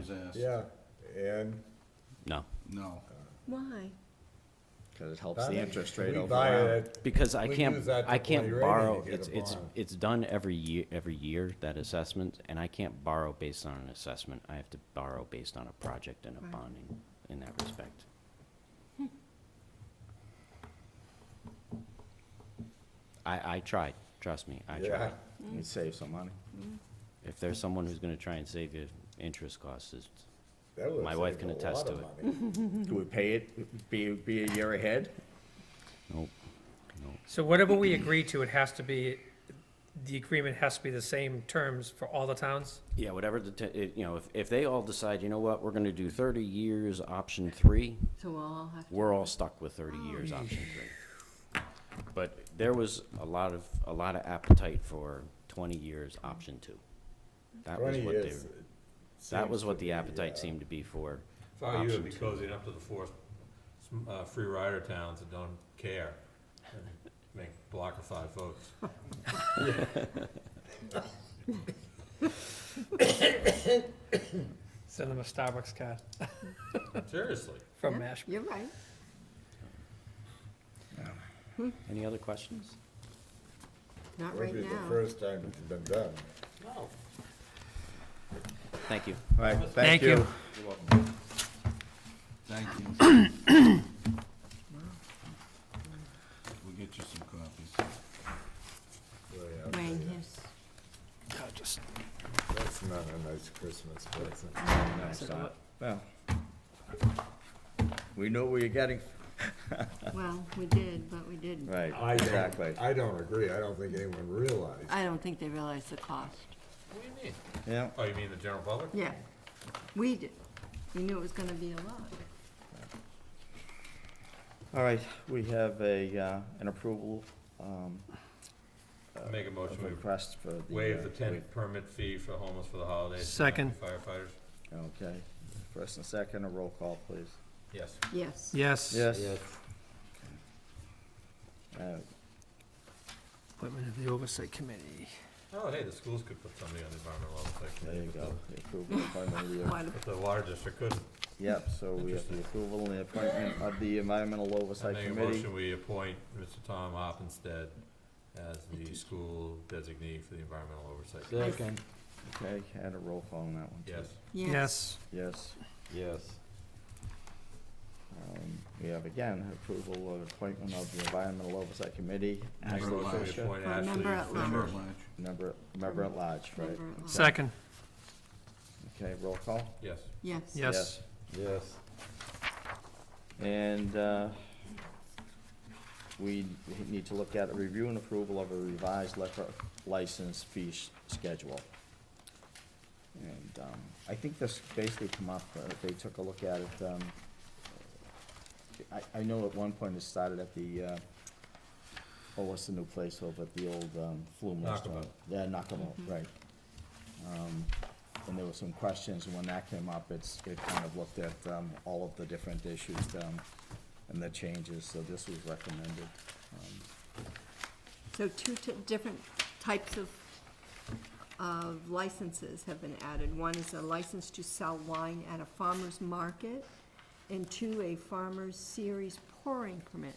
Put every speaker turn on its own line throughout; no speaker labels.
was asked.
Yeah, and
No,
No.
Why?
Because it helps the interest rate
we
over.
buy it.
because I
We
can't,
use that to
I
play
can't
radio to
borrow,
get
it's,
a
it's,
bond.
it's done every year, every year, that assessment, and I can't borrow based on an assessment. I have to borrow based on a project and a
Right.
bonding in that respect. I, I tried, trust me, I
Yeah,
tried.
You'd save some money.
If there's someone who's gonna try and save you interest costs, it's,
that would
My wife
save
can
a
attest
lot
to
of money.
Could we pay it, be, be a year ahead?
nope, nope.
So whatever we agree to, it has to be, the agreement has to be the same terms for all the towns?
Yeah, whatever the, t- it- you know, if, if they all decide, you know what, we're gonna do thirty years, option three,
So we'll all have to.
we're all stuck with thirty years, option three. But there was a lot of, a lot of appetite for twenty years, option two. That was
Twenty
what they,
years.
that was
seems
what
to
the
be,
appetite
uh,
seemed to be for.
Thought you
Option
would be
two.
closing up to the four s- uh, free rider towns that don't care. and Make a block of five votes.
Send them a Starbucks card
Seriously.
from
Yeah,
Mashpee.
You're right.
Any other questions?
Not
Would
right
be the
now.
first time it's been done.
Thank you.
All right,
Thank
thank you.
you.
Thank you. We'll get you some copies.
Really, uh,
Wayne, yes.
That's not a nice Christmas present.
No, it's not. Well, we knew what we were getting.
Well, we did, but we didn't.
Right,
I don't-
exactly.
I don't agree. I don't think anyone realized.
I don't think they realize the cost.
What do you mean?
Yeah,
Oh, you mean the general public?
Yeah, we did. We knew it was gonna be a lot.
all right, we have a, uh, an approval, um,
Make a motion,
of
we
request for the.
waive
uh,
the tenant permit fee for homeless for the holidays. for
Second.
Firefighters,
wa- Okay, first and second, a roll call, please.
yes.
Yes.
Yes.
Yes. Uh,
Appointment of the Oversight Committee.
Oh, hey, the schools could put somebody on the environmental oversight
There you
committee.
go, the approval of appointment of the-
Why do-
But the water district couldn't.
Yep, so we have the approval and the appointment of the Environmental
I
Oversight
make a
Committee.
motion, we appoint Mr. Tom Hoppenstead as the school designee for the environmental oversight. committee.
Second.
Okay, had a roll call on that one. too.
Yes.
Yes.
Yes.
Yes.
Yes.
Um, We have again, approval of appointment of the Environmental Oversight Committee,
Make a
Ashley
motion, we
Fisher,
appoint
For
Ashley
member at large.
Member
Fisher.
at large.
member, member at large, right?
Member at large.
Second.
Okay, roll call?
Yes.
Yes.
Yes.
Yes.
And uh, we need to look at a review and approval of a revised liquor license fee s- schedule. And um, I think this basically come up, uh, they took a look at it. um, I, I know at one point it started at the, uh, oh, what's the new place over at the old um, Flume restaurant?
Nakamo.
Yeah, Nakamo, right. Um, and there were some questions, and when that came up, it's, it kind of looked at, um, all of the different issues, um, and the changes, so this was recommended. Um,
So two t- different types of, of licenses have been added. One is a license to sell wine at a farmer's market, and two, a farmer's series pouring permit.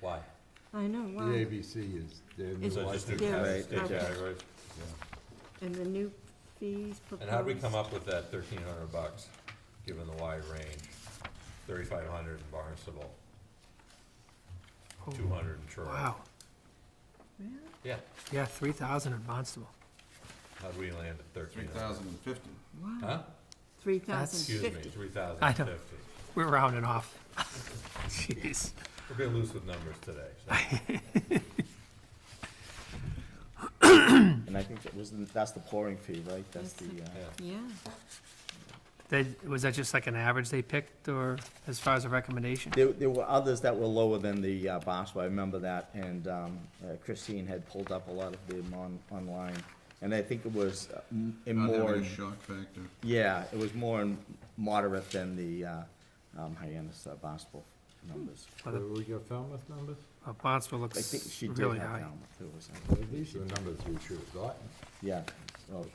Why?
I know,
The
wow.
ABC is, their new
Is
So just new
license.
Yeah.
categories,
Right, okay.
categories.
And the new fees proposed.
And how'd we come up with that thirteen hundred bucks, given the wide range? Thirty-five hundred in Barnstable,
Oh,
two hundred in Troy.
Wow.
Really?
Yeah,
Yeah, three thousand in Barnstable.
how'd we land at
Three
thirteen hundred?
thousand and fifty.
Wow,
Huh?
three
That's-
thousand
Excuse me,
fifty.
three thousand
I
and
don't-
fifty.
We're rounding off. Jeez.
We're being loose with numbers today, so.
And I think that was, the- that's the pouring fee, right? That's the, uh,
yeah.
Yeah,
They, was that just like an average they picked, or as far as a recommendation?
there, there were others that were lower than the, uh, Barnstable, I remember that, and, um, uh, Christine had pulled up a lot of them on, online. And I think it was uh, m- in
Not
more,
having a shock factor.
yeah, it was more in moderate than the, uh, um, Hyannis, uh, Barnstable numbers.
Well, the-
we got Falmouth numbers?
uh, Barnstable
I think
looks
she did
really
have
high.
Falmouth, too, or something.
These are the numbers we should have gotten.
uh, Yeah,